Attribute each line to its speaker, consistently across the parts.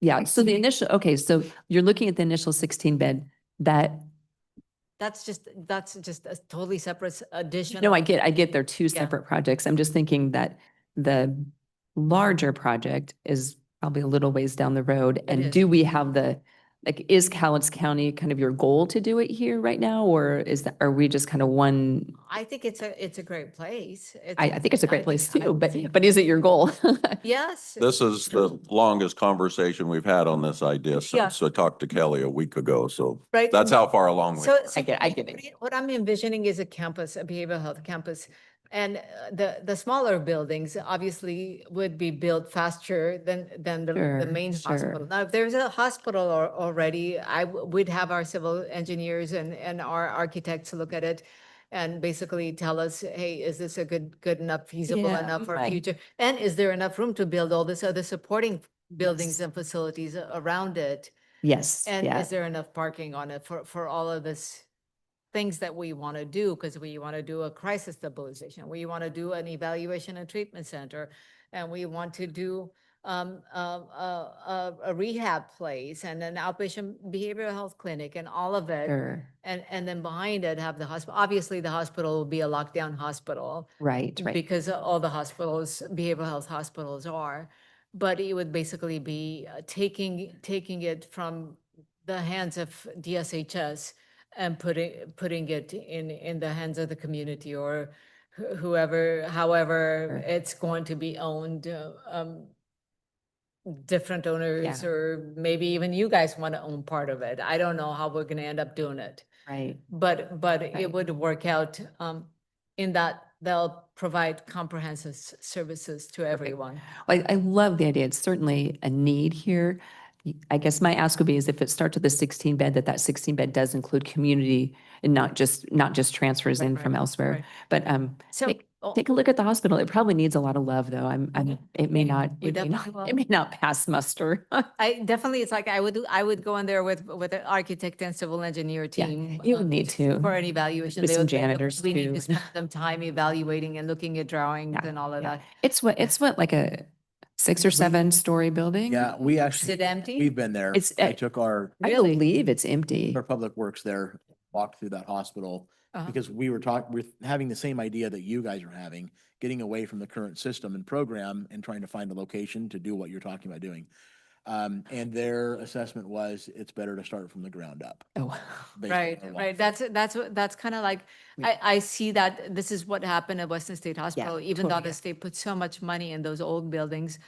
Speaker 1: Yeah, so the initial, okay, so you're looking at the initial sixteen bed that,
Speaker 2: That's just, that's just a totally separate s- addition.
Speaker 1: no, I get, I get they're two
Speaker 2: Yeah.
Speaker 1: separate projects. I'm just thinking that the larger project is probably a little ways down the road. And
Speaker 2: is.
Speaker 1: do we have the, like, is Cowlitz County kind of your goal to do it here right now? Or is that, are we just kind of one?
Speaker 2: I think it's a, it's a great place. It's-
Speaker 1: I, I think it's a great place
Speaker 2: I
Speaker 1: too, but,
Speaker 2: think-
Speaker 1: but is it your goal?
Speaker 2: Yes.
Speaker 3: This is the longest conversation we've had on this idea
Speaker 2: Yeah.
Speaker 3: since I talked to Kelly a week ago, so
Speaker 2: Right?
Speaker 3: that's how far along we
Speaker 2: So.
Speaker 3: are.
Speaker 2: so
Speaker 1: I get- I get
Speaker 2: what
Speaker 1: it.
Speaker 2: I- What I'm envisioning is a campus, a behavioral health campus. And uh, the, the smaller buildings obviously would be built faster than, than the, the
Speaker 1: Sure,
Speaker 2: main
Speaker 1: sure.
Speaker 2: hospital. Now, if there's a hospital or, already, I, w- we'd have our civil engineers and, and our architects look at it and basically tell us, hey, is this a good, good enough, feasible
Speaker 1: Yeah,
Speaker 2: enough for
Speaker 1: right.
Speaker 2: future? And is there enough room to build all this other supporting
Speaker 1: Yes.
Speaker 2: buildings and facilities a- around it?
Speaker 1: Yes,
Speaker 2: And
Speaker 1: yeah,
Speaker 2: is there enough parking on it for, for all of this things that we want to do? Because we want to do a crisis stabilization, we want to do an evaluation and treatment center, and we want to do um, a, a, a- a rehab place and an outpatient behavioral health clinic and all of it.
Speaker 1: sure,
Speaker 2: And, and then behind it have the hospital, obviously the hospital will be a lockdown hospital
Speaker 1: right, right.
Speaker 2: because all the hospitals, behavioral health hospitals are. But it would basically be uh, taking, taking it from the hands of DSHS and putting, putting it in, in the hands of the community or wh- whoever, however
Speaker 1: Sure.
Speaker 2: it's going to be owned. uh, um, Different owners, or maybe even you guys want to own part of it. I don't know how we're going to end up doing it.
Speaker 1: Right,
Speaker 2: But, but
Speaker 1: Right.
Speaker 2: it would work out um, in that they'll provide comprehensive s- services to everyone.
Speaker 1: I, I love the idea. It's certainly a need here. Y- I guess my ask would be is if it starts with a sixteen bed, that that sixteen bed does include community and not just, not just transfers
Speaker 2: Right,
Speaker 1: in from
Speaker 2: right,
Speaker 1: elsewhere.
Speaker 2: right.
Speaker 1: But, um,
Speaker 2: So,
Speaker 1: Take-
Speaker 2: oh,
Speaker 1: take a look at the hospital. It probably needs a lot of love though. I'm, I'm, it may
Speaker 2: Mm-hmm.
Speaker 1: not,
Speaker 2: Yeah, we
Speaker 1: it may not,
Speaker 2: definitely will.
Speaker 1: it may not pass muster.
Speaker 2: I definitely, it's like I would, do- I would go in there with, with an architect and civil engineer
Speaker 1: Yeah,
Speaker 2: team.
Speaker 1: you
Speaker 2: uh,
Speaker 1: need to.
Speaker 2: For an evaluation.
Speaker 1: With
Speaker 2: They
Speaker 1: some
Speaker 2: would- they would-
Speaker 1: janitors
Speaker 2: We need
Speaker 1: too.
Speaker 2: to spend some time evaluating and looking at drawings
Speaker 1: Yeah,
Speaker 2: and all of
Speaker 1: yeah.
Speaker 2: that.
Speaker 1: It's what, it's what, like a six or
Speaker 2: Mm-hmm.
Speaker 4: We-
Speaker 1: seven story building?
Speaker 4: Yeah, we
Speaker 2: Is
Speaker 4: actually,
Speaker 2: it empty?
Speaker 4: we've been there.
Speaker 1: It's, uh,
Speaker 4: I took our,
Speaker 1: I
Speaker 2: Really?
Speaker 1: believe it's empty.
Speaker 4: our public works there, walked through that hospital
Speaker 2: Uh-huh.
Speaker 4: because we were talking, we're having the same idea that you guys are having, getting away from the current system and program and trying to find a location to do what you're talking about doing. Um, and their assessment was it's better to start from the ground up.
Speaker 1: Oh,
Speaker 4: based on
Speaker 2: Right,
Speaker 4: our
Speaker 2: right.
Speaker 4: walkthrough.
Speaker 2: That's, that's, what- that's kind of like,
Speaker 1: We-
Speaker 2: I, I see that this is what happened at Western State Hospital. Even though
Speaker 1: totally, yeah.
Speaker 2: the state put so much money in those old buildings,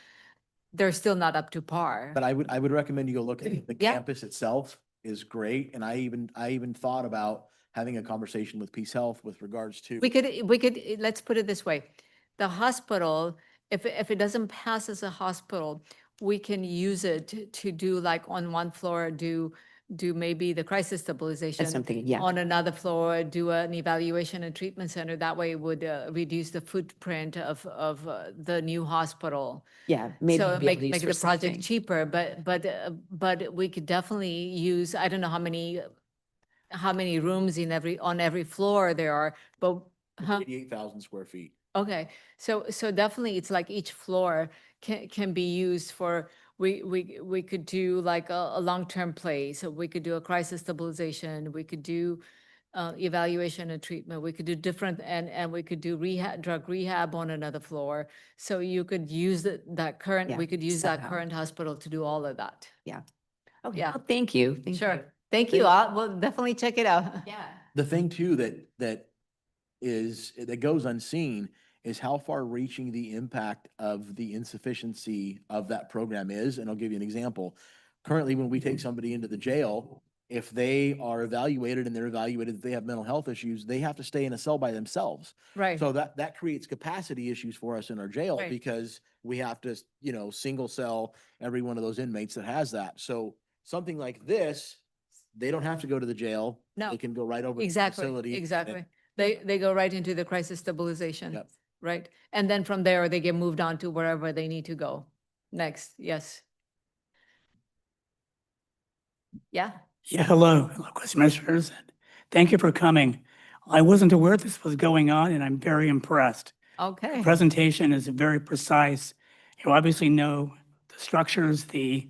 Speaker 2: they're still not up to par.
Speaker 4: But I would, I would recommend you go look at it. the
Speaker 2: Yeah.
Speaker 4: campus itself is great. And I even, I even thought about having a conversation with Peace Health with regards to.
Speaker 2: We could, we could, let's put it this way. The hospital, if, it- if it doesn't pass as a hospital, we can use it to- to do like on one floor, do, do maybe the crisis stabilization.
Speaker 1: that's something, yeah.
Speaker 2: on another floor, do an evaluation and treatment center. That way it would uh, reduce the footprint of, of uh, the new hospital.
Speaker 1: Yeah. maybe
Speaker 2: So
Speaker 1: be
Speaker 2: make,
Speaker 1: leased
Speaker 2: make
Speaker 1: or
Speaker 2: the
Speaker 1: something.
Speaker 2: project cheaper, but, but, uh, but we could definitely use, I don't know how many, how many rooms in every, on every floor there are, but, huh?
Speaker 4: Eighty-eight thousand square feet.
Speaker 2: Okay, so, so definitely it's like each floor can, can be used for, we, we, we could do like a, a long-term play. So we could do a crisis stabilization, we could do uh, evaluation and treatment, we could do different, and, and we could do rehab, drug rehab on another floor. So you could use that, that current,
Speaker 1: Yeah,
Speaker 2: we could use that
Speaker 1: somehow.
Speaker 2: current hospital to do all of that.
Speaker 1: Okay,
Speaker 2: yeah.
Speaker 1: well, Thank you. thank you.
Speaker 2: Sure, thank you, I'll, we'll definitely check it out.
Speaker 1: Yeah.
Speaker 4: The thing too that, that is, that goes unseen is how far reaching the impact of the insufficiency of that program is. And I'll give you an example. Currently, when we take somebody into the jail, if they are evaluated and they're evaluated, that they have mental health issues, they have to stay in a cell by themselves.
Speaker 2: Right,
Speaker 4: So that, that creates capacity issues for us in our jail
Speaker 2: Right.
Speaker 4: because we have to, s- you know, single cell every one of those inmates that has that. So something like this, they don't have to go to the jail.
Speaker 2: No.
Speaker 4: They can go right over. to the facility
Speaker 2: exactly,
Speaker 4: and
Speaker 2: exactly. They, they go right into the crisis stabilization.
Speaker 4: Yep.
Speaker 2: Right, and then from there, they get moved on to wherever they need to go next, yes. Yeah,
Speaker 5: Yeah, hello, hello, commissioners. and Thank you for coming. I wasn't aware this was going on and I'm very impressed. The
Speaker 2: okay,
Speaker 5: Presentation is very precise. You obviously know the structures, the